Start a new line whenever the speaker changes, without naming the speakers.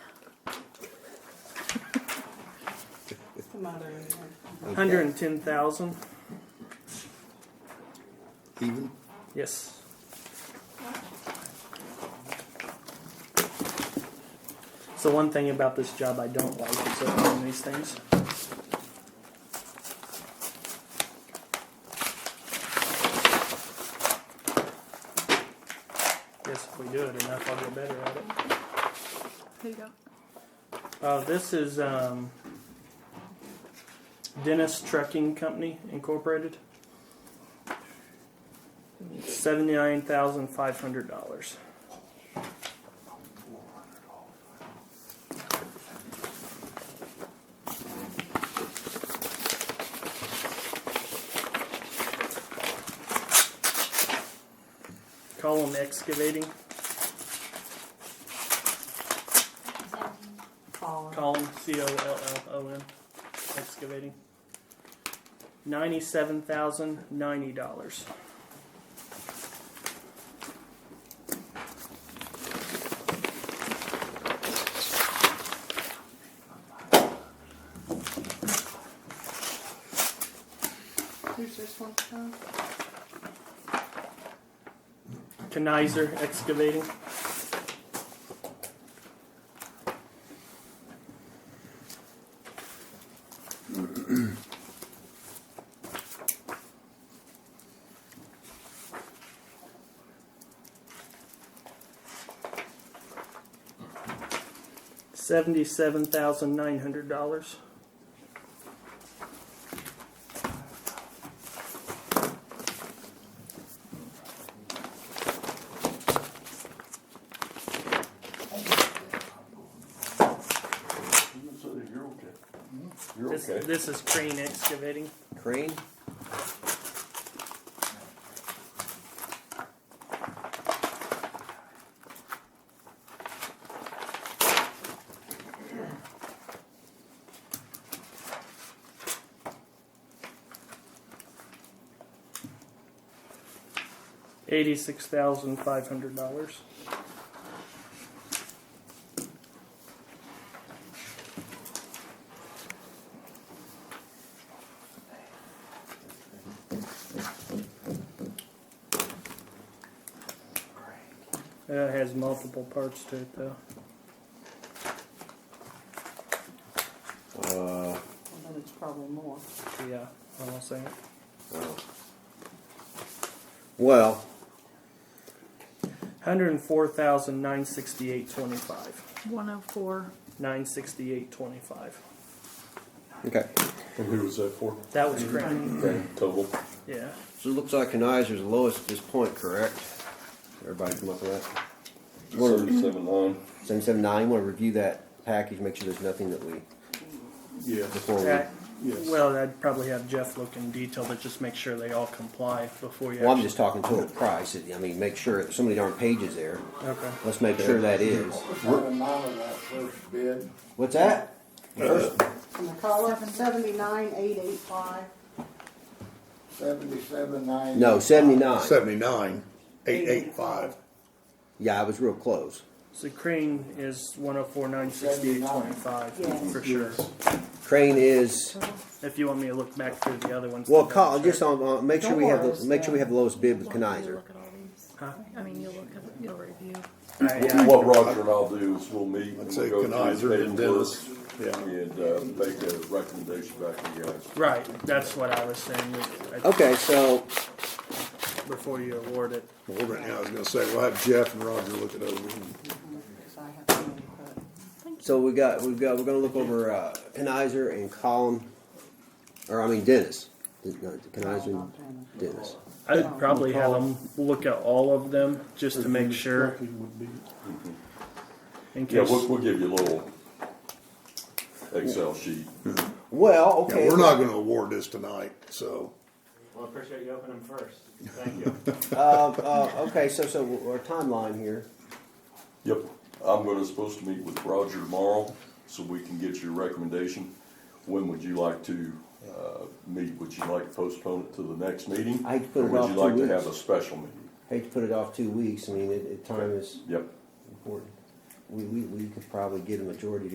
mother in there.
Okay.
Hundred and ten thousand.
Even?
Yes. So one thing about this job I don't like is opening these things. Guess if we do it enough, I'll get better at it.
Who you got?
Uh, this is um, Dennis Trucking Company Incorporated. Seventy-nine thousand five hundred dollars. Column excavating.
Colin.
Column C O L L O N excavating. Ninety-seven thousand ninety dollars.
Who's this one?
Kenizer excavating. Seventy-seven thousand nine hundred dollars.
You're okay. You're
This,
okay.
this is crane excavating.
Crane?
Eighty-six thousand five hundred dollars. That Uh, has multiple parts to it, though.
Uh,
Then it's probably more.
Yeah, I won't say it.
oh. Well,
Hundred and four thousand nine sixty-eight twenty-five.
One oh four.
Nine sixty-eight twenty-five.
okay.
And who was that for?
That was crane.
Okay, total.
Yeah.
So it looks like Kenizer's the lowest at this point, correct? Everybody come up with that? Wanna-
Seven nine.
779, want to review that package, make sure there's nothing that we,
Yeah.
before we.
That-
Yes.
Well, I'd probably have Jeff look in detail, but just make sure they all comply before you.
Well, I'm
actually-
just talking total price. I mean, make sure, that some of the darn pages there,
Okay.
let's make sure that is.
What's that amount of that first bid?
What's that?
And the color, seventy-nine, eight, eight, five.
Seventy-seven nine?
No, 79.
Seventy-nine, eight eight five.
Yeah, I was real close.
So Crane is one oh four nine sixty-eight twenty-five,
Yes.
for sure.
Crane is,
If you want me to look back through the other ones.
well,
to
call,
double
just
check.
on, uh, make sure we have, the
Don't
make sure we have the lowest bid with
Well, you
Kenizer.
Look at all these.
Huh?
I mean, you'll look at, you'll review.
I- uh, yeah, I-
What Roger and I'll do is we'll meet. and
I'd say
go through the
Kenizer
paperwork
and Dennis. Yeah.
And, uh, make a recommendation back to you guys.
Right, that's what I was saying, that-
Okay, so,
before you award it.
Well, right now, I was gonna say, we'll have Jeff and Roger look it over.
Because I have to input.
so we got, we've got, we're gonna look over, uh, Kenizer and Column, or I mean Dennis. Kenizer and Dennis.
I'd probably have them look at all of them, just to make sure, in
Yeah,
case.
we'll, we'll give you a little Excel sheet.
Well, okay.
Yeah, we're not gonna award this tonight, so.
Well, I appreciate you opening first. Thank you.
Uh, uh, okay, so, so our timeline here.
Yep, I'm gonna, supposed to meet with Roger tomorrow, so we can get your recommendation. When would you like to, uh, meet? Would you like to postpone it to the next meeting?
I could put
Or
it off two
Would you like
weeks.
to have a special meeting?
Hate to put it off two weeks. I mean, it, it, time is
Yep.
important. We, we, we could probably get a majority